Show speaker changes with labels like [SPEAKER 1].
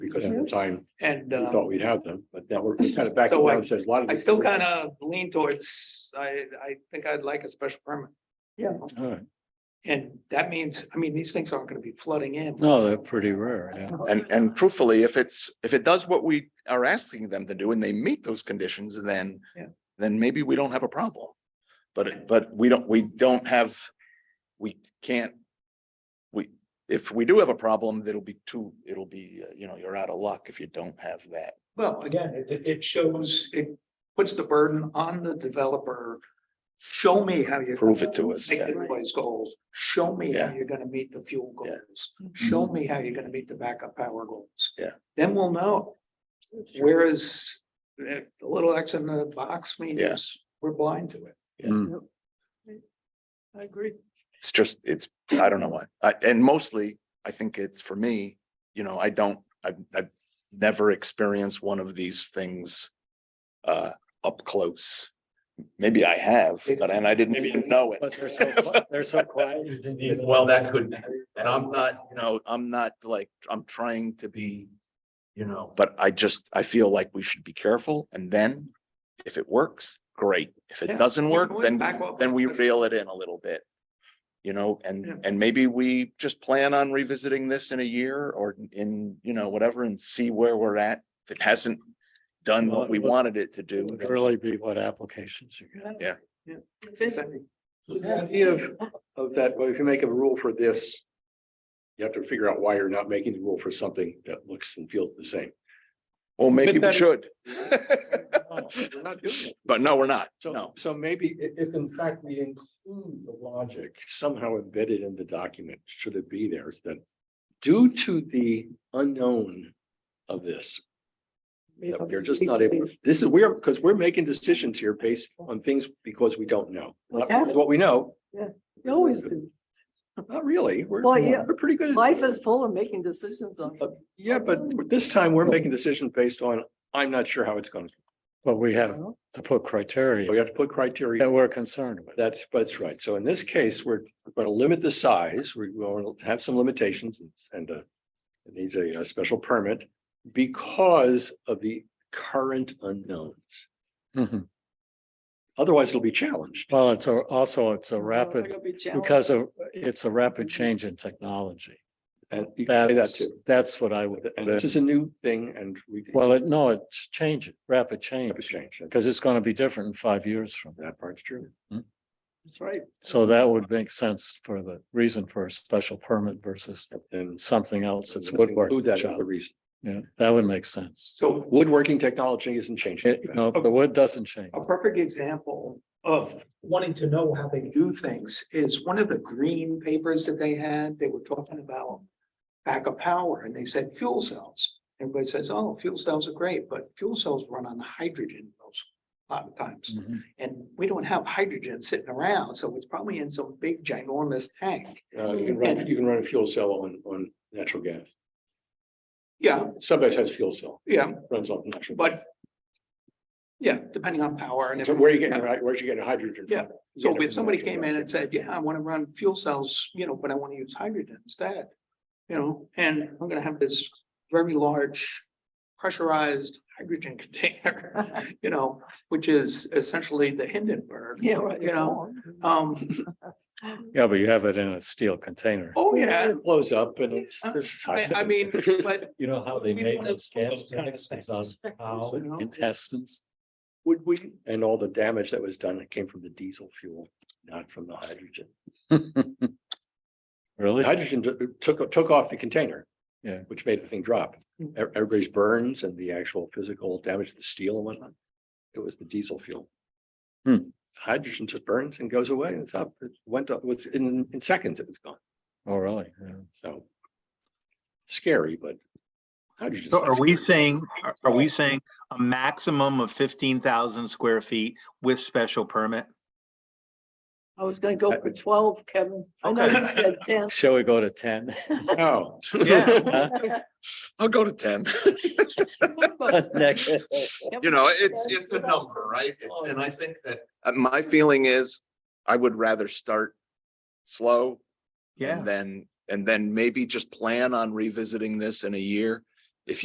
[SPEAKER 1] because at the time,
[SPEAKER 2] And
[SPEAKER 1] we
[SPEAKER 2] uh,
[SPEAKER 1] thought we'd have them, but now we're kind of back.
[SPEAKER 2] So I-
[SPEAKER 1] Says a lot of.
[SPEAKER 2] I
[SPEAKER 1] these-
[SPEAKER 2] still kind of lean towards, I, I think I'd like a special permit. Yeah.
[SPEAKER 3] All right.
[SPEAKER 2] And that means, I mean, these things aren't gonna be flooding in.
[SPEAKER 3] No, they're pretty rare, yeah.
[SPEAKER 4] And, and truthfully, if it's, if it does what we are asking them to do and they meet those conditions, then,
[SPEAKER 2] Yeah.
[SPEAKER 4] then maybe we don't have a problem. But, it- but we don't, we don't have, we can't, we, if we do have a problem, that'll be too, it'll be, uh, you know, you're out of luck if you don't have that.
[SPEAKER 2] Well, again, it- it, it shows, it puts the burden on the developer. Show me how you're.
[SPEAKER 4] Prove
[SPEAKER 2] gonna
[SPEAKER 4] it to us,
[SPEAKER 2] Make
[SPEAKER 4] yeah.
[SPEAKER 2] the noise goals, show me how
[SPEAKER 4] Yeah.
[SPEAKER 2] you're gonna meet the fuel
[SPEAKER 4] Yeah.
[SPEAKER 2] goals,
[SPEAKER 5] Mm-hmm.
[SPEAKER 2] show me how you're gonna meet the backup power goals.
[SPEAKER 4] Yeah.
[SPEAKER 2] Then we'll know. Whereas eh, the little X in the box means we're blind to it.
[SPEAKER 5] Mm.
[SPEAKER 2] I agree.
[SPEAKER 4] It's just, it's, I don't know why. I and mostly, I think it's for me, you know, I don't, I've, I've never experienced one of these things uh, up close. Maybe I have, but and I didn't even know it.
[SPEAKER 3] But they're so, qui- they're so quiet. you didn't even-
[SPEAKER 4] Well, that could, and I'm not, you know, I'm not like, I'm trying to be, you know, but I just, I feel like we should be careful and then if it works, great. If it
[SPEAKER 2] Yeah.
[SPEAKER 4] doesn't work, then
[SPEAKER 2] Back up.
[SPEAKER 4] then we reel it in a little bit. You know, and,
[SPEAKER 2] Yeah.
[SPEAKER 4] and maybe we just plan on revisiting this in a year or in, you know, whatever and see where we're at. If it hasn't done
[SPEAKER 3] Well,
[SPEAKER 4] what we
[SPEAKER 3] it would-
[SPEAKER 4] wanted it to
[SPEAKER 3] It
[SPEAKER 4] do.
[SPEAKER 3] would
[SPEAKER 4] then-
[SPEAKER 3] really be what applications you get.
[SPEAKER 4] Yeah.
[SPEAKER 2] Yeah.
[SPEAKER 1] So The idea of, of that, well, if you make a rule for this, you have to figure out why you're not making the rule for something that looks and feels the same.
[SPEAKER 4] Well, maybe we
[SPEAKER 1] that-
[SPEAKER 4] should,
[SPEAKER 3] Oh,
[SPEAKER 1] We're not doing it.
[SPEAKER 4] but no, we're not.
[SPEAKER 1] So,
[SPEAKER 4] No,
[SPEAKER 1] so maybe i- if in fact we include the logic somehow embedded in the document, should it be there, is that due to the unknown of this, that we're just not able, this is, we're, because we're making decisions here based on things because we don't know. Not
[SPEAKER 5] Yeah.
[SPEAKER 1] because what we know,
[SPEAKER 5] You always do.
[SPEAKER 1] not really, we're,
[SPEAKER 5] Well, yeah.
[SPEAKER 1] we're pretty good. at-
[SPEAKER 5] Life is full of making decisions on.
[SPEAKER 1] Yeah, but this time we're making decisions based on, I'm not sure how it's going to,
[SPEAKER 3] But we have to put
[SPEAKER 1] we
[SPEAKER 3] criteria
[SPEAKER 1] have to put criteria.
[SPEAKER 3] that we're concerned with.
[SPEAKER 1] That's, that's right. So in this case, we're going to limit the size. We will have some limitations and uh, it needs a, a special permit because of the current unknowns. Mm-hmm.
[SPEAKER 3] Mhm.
[SPEAKER 1] Otherwise, it'll be challenged.
[SPEAKER 3] Well, it's a- also, it's a
[SPEAKER 2] Mm-hmm.
[SPEAKER 5] They're
[SPEAKER 3] rapid,
[SPEAKER 5] gonna be challenged.
[SPEAKER 3] because of, it's a rapid change in technology.
[SPEAKER 1] And you can say that
[SPEAKER 3] That's,
[SPEAKER 1] too.
[SPEAKER 3] that's what I would.
[SPEAKER 1] And this is a new thing and we.
[SPEAKER 3] Well, it, no, it's changing, rapid
[SPEAKER 1] Have a
[SPEAKER 3] change,
[SPEAKER 1] change. That-
[SPEAKER 3] because it's going to be different in five years from now.
[SPEAKER 1] That part's true.
[SPEAKER 2] That's right.
[SPEAKER 3] So that would make sense for the reason for a special permit versus
[SPEAKER 1] And.
[SPEAKER 3] something else that's
[SPEAKER 1] Include
[SPEAKER 3] woodworking
[SPEAKER 1] that as
[SPEAKER 3] job.
[SPEAKER 1] the reason.
[SPEAKER 3] Yeah, that would make sense.
[SPEAKER 1] So woodworking technology isn't changing.
[SPEAKER 3] It- no, the wood doesn't change.
[SPEAKER 2] A perfect example of wanting to know how they do things is one of the green papers that they had, they were talking about backup power and they said fuel cells. Everybody says, oh, fuel cells are great, but fuel cells run on hydrogen most, a lot of times.
[SPEAKER 3] Mhm.
[SPEAKER 2] And we don't have hydrogen sitting around, so it's probably in some big ginormous tank.
[SPEAKER 1] Uh, you can run, you can run a fuel cell on, on natural gas.
[SPEAKER 2] Yeah,
[SPEAKER 1] Subway has fuel cell,
[SPEAKER 2] yeah,
[SPEAKER 1] runs on natural.
[SPEAKER 2] but yeah, depending on power and
[SPEAKER 1] So
[SPEAKER 2] everything.
[SPEAKER 1] where are you getting, where's you getting hydrogen? from?
[SPEAKER 2] Yeah.
[SPEAKER 1] You get
[SPEAKER 2] So
[SPEAKER 1] it
[SPEAKER 2] if
[SPEAKER 1] from
[SPEAKER 2] somebody
[SPEAKER 1] natural
[SPEAKER 2] came in
[SPEAKER 1] gas.
[SPEAKER 2] and said, yeah, I want to run fuel cells, you know, but I want to use hydrogen instead. You know, and I'm gonna have this very large pressurized hydrogen container, you know, which is essentially the Hindenburg.
[SPEAKER 5] Yeah, right.
[SPEAKER 2] You know, um,
[SPEAKER 3] Yeah, but you have it in a steel container.
[SPEAKER 2] oh, yeah,
[SPEAKER 1] It blows up and it's.
[SPEAKER 2] I-
[SPEAKER 1] it's
[SPEAKER 2] I,
[SPEAKER 1] hydrogen.
[SPEAKER 2] I mean, but
[SPEAKER 3] You know how
[SPEAKER 2] they We made wanna- those gas tanks
[SPEAKER 3] those
[SPEAKER 2] cow You know?
[SPEAKER 3] Intestines.
[SPEAKER 2] would we,
[SPEAKER 1] And all the damage that was done, it came from the diesel fuel, not from the hydrogen. The
[SPEAKER 3] Really?
[SPEAKER 1] hydrogen t- took, took off the container.
[SPEAKER 3] Yeah.
[SPEAKER 1] Which made the thing drop. E-
[SPEAKER 2] Mm.
[SPEAKER 1] Everybody's burns and the actual physical damage to the steel and whatnot. It was the diesel fuel.
[SPEAKER 3] Hmm.
[SPEAKER 1] Hydrogen just burns and goes away. It's up, it went up, it was in, in seconds, it was gone.
[SPEAKER 3] Oh, really? Yeah.
[SPEAKER 1] So. Scary, but. hydrogen's
[SPEAKER 6] So
[SPEAKER 1] not
[SPEAKER 6] are
[SPEAKER 1] scary.
[SPEAKER 6] we saying, are- are we saying a maximum of fifteen thousand square feet with special permit?
[SPEAKER 5] I was gonna go for twelve, Kevin. I know you said ten.
[SPEAKER 3] Shall we go to ten?
[SPEAKER 1] Oh.
[SPEAKER 6] Yeah.
[SPEAKER 4] I'll go to ten.
[SPEAKER 3] Next.
[SPEAKER 4] You know, it's, it's a number, right? It's- And I think that. uh, My feeling is I would rather start slow
[SPEAKER 6] Yeah,
[SPEAKER 4] And then, and then maybe just plan on revisiting this in a year.